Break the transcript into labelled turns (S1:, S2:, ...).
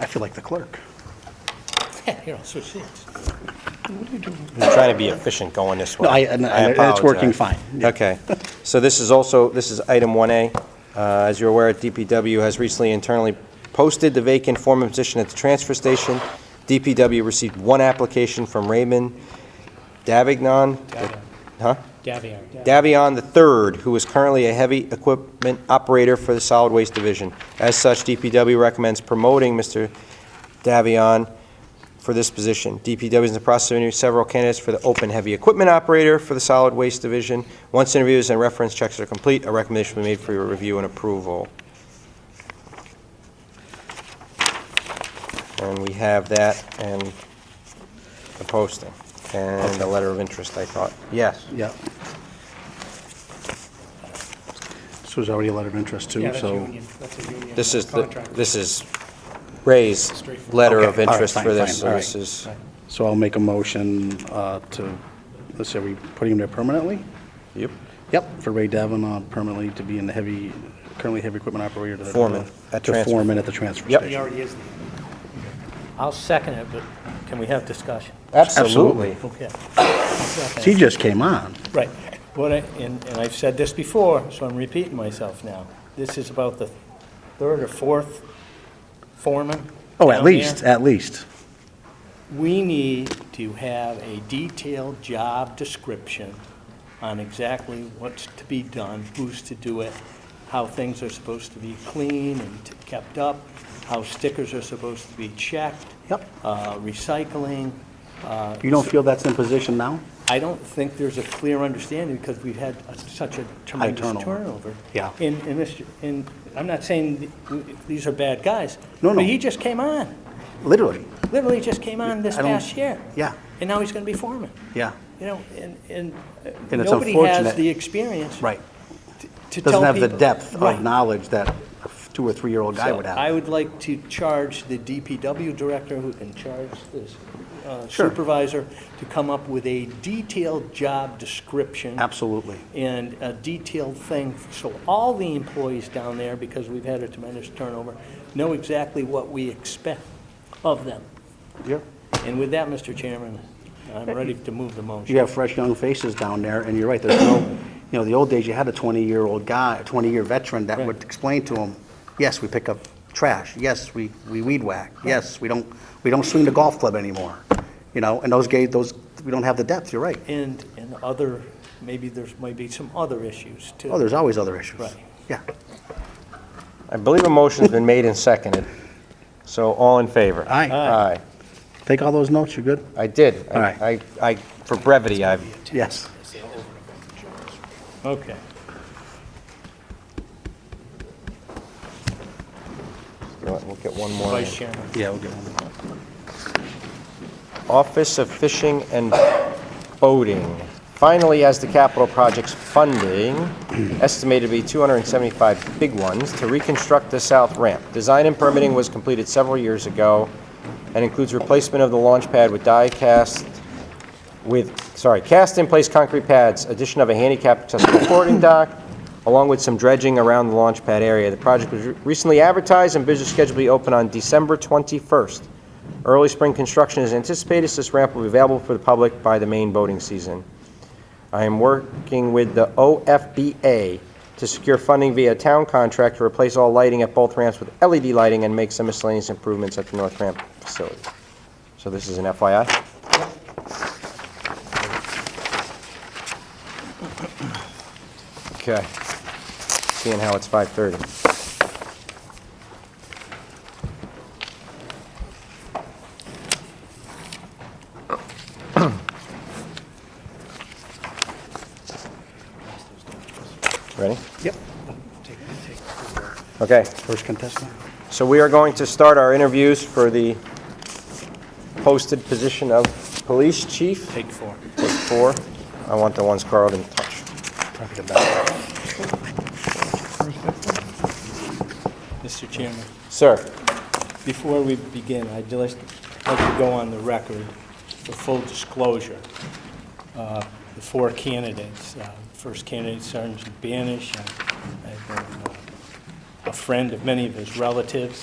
S1: I feel like the clerk.
S2: Here, I'll switch seats.
S3: I'm trying to be efficient going this way.
S1: No, I- and- and it's working
S3: apologize.
S1: fine, yeah.
S3: Okay. So this is also, this is item 1A. Uh, As you're aware, DPW has recently internally posted the vacant foreman position at the transfer station. DPW received one application from Raymond Davignon. Huh?
S2: Davion.
S3: Davion III, who is currently a heavy equipment operator for the Solid Waste Division. As such, DPW recommends promoting Mr. Davion for this position. DPW is in the process of interviewing several candidates for the open heavy equipment operator for the Solid Waste Division. Once interviews and reference checks are complete, a recommendation will be made for your review and approval. And we have that and the posting and the letter of interest, I thought. Yes?
S1: Yeah. This was already a letter of interest
S2: Yeah,
S1: too,
S2: that's
S1: so.
S2: union. That's a union
S3: This is, the
S2: contract.
S3: this is Ray's
S2: Straightforward.
S3: letter
S1: Okay,
S3: of
S1: all right,
S3: interest
S1: fine,
S3: for
S1: fine,
S3: this, so
S1: all
S3: this
S1: right.
S3: is,
S1: So I'll make a motion uh, to, let's say, are we putting him there permanently?
S3: yep,
S1: Yep. For Ray Devon uh, permanently to be in the heavy, currently heavy equipment operator. to-
S3: Foreman at
S1: To
S3: transfer.
S1: foreman at the transfer
S3: Yep.
S1: station.
S2: He already is.
S4: I'll second it, but can we have discussion?
S3: absolutely.
S4: Okay.
S1: He just came on.
S4: Right. What I, and, and I've said this before, so I'm repeating myself now. This is about the third or fourth foreman.
S1: Oh, at
S4: down there.
S1: least, at least.
S4: We need to have a detailed job description on exactly what's to be done, who's to do it, how things are supposed to be clean and t- kept up, how stickers are supposed to be checked.
S1: Yep.
S4: Uh, recycling,
S1: You don't feel that's in position now?
S4: I don't think there's a clear understanding because we've had a- such a tremendous
S1: turnover.
S4: turnover.
S1: Yeah.
S4: In, in Mr., in, I'm not saying th- w- these are bad guys.
S1: No, no.
S4: But he just came on,
S1: Literally,
S4: literally just came on this
S1: I don't-
S4: past year.
S1: yeah.
S4: And now he's going to be foreman.
S1: yeah,
S4: You know, and, and uh,
S1: And it's
S4: nobody has
S1: unfortunate.
S4: the experience
S1: right.
S4: to tell people.
S1: Doesn't have the depth
S4: Right.
S1: of knowledge that a two or three-year-old guy
S4: So
S1: would
S4: I
S1: have.
S4: would like to charge the DPW director, who can charge this uh,
S1: Sure.
S4: supervisor, to come up with a detailed job description.
S1: Absolutely.
S4: And a detailed thing, so all the employees down there, because we've had a tremendous turnover, know exactly what we expect of them.
S1: Yeah.
S4: And with that, Mr. Chairman, I'm ready to move the motion.
S1: You have fresh, young faces down there, and you're right, there's no, you know, the old days, you had a 20-year-old guy, a 20-year veteran that would explain to him, yes, we pick up trash, yes, we, we weed whack, yes, we don't, we don't swing the golf club anymore, you know, and those guys, those, we don't have the depth, you're right.
S4: And, and other, maybe there's, maybe some other issues too.
S1: Oh, there's always other issues.
S4: Right.
S1: Yeah.
S3: I believe a motion's been made and seconded, so all in favor?
S1: Aye. Aye.
S3: Aye.
S1: Take all those notes, you're good?
S3: I did. I-
S1: All right.
S3: I, I, for brevity, I've,
S1: Yes.
S4: Okay.
S3: you know what, we'll get one more.
S4: Vice Chairman.
S1: Yeah, we'll get one.
S3: Office of Fishing and Boating. Finally, as the capital project's funding, estimated to be 275 big ones, to reconstruct the south ramp. Design and permitting was completed several years ago and includes replacement of the launch pad with die-cast, with, sorry, cast-in-place concrete pads, addition of a handicap accessible boarding dock, along with some dredging around the launch pad area. The project was re- recently advertised and bids are scheduled to be open on December 21st. Early spring construction is anticipated, so this ramp will be available for the public by the main boating season. I am working with the OFBA to secure funding via town contract to replace all lighting at both ramps with LED lighting and make some miscellaneous improvements at the north ramp facility. So this is an FYI. Okay. Seeing how it's 5:30. Ready?
S1: Yep.
S3: Okay.
S1: First contestant.
S3: So we are going to start our interviews for the posted position of police chief. Take four. Take four. I want the ones Carl didn't touch.
S1: Probably the best.
S4: Mr. Chairman.
S3: Sir,
S4: Before we begin, I'd just like to go on the record for full disclosure. Uh, The four candidates, uh, first candidate Sergeant Banish, I've been uh, a friend of many of his relatives,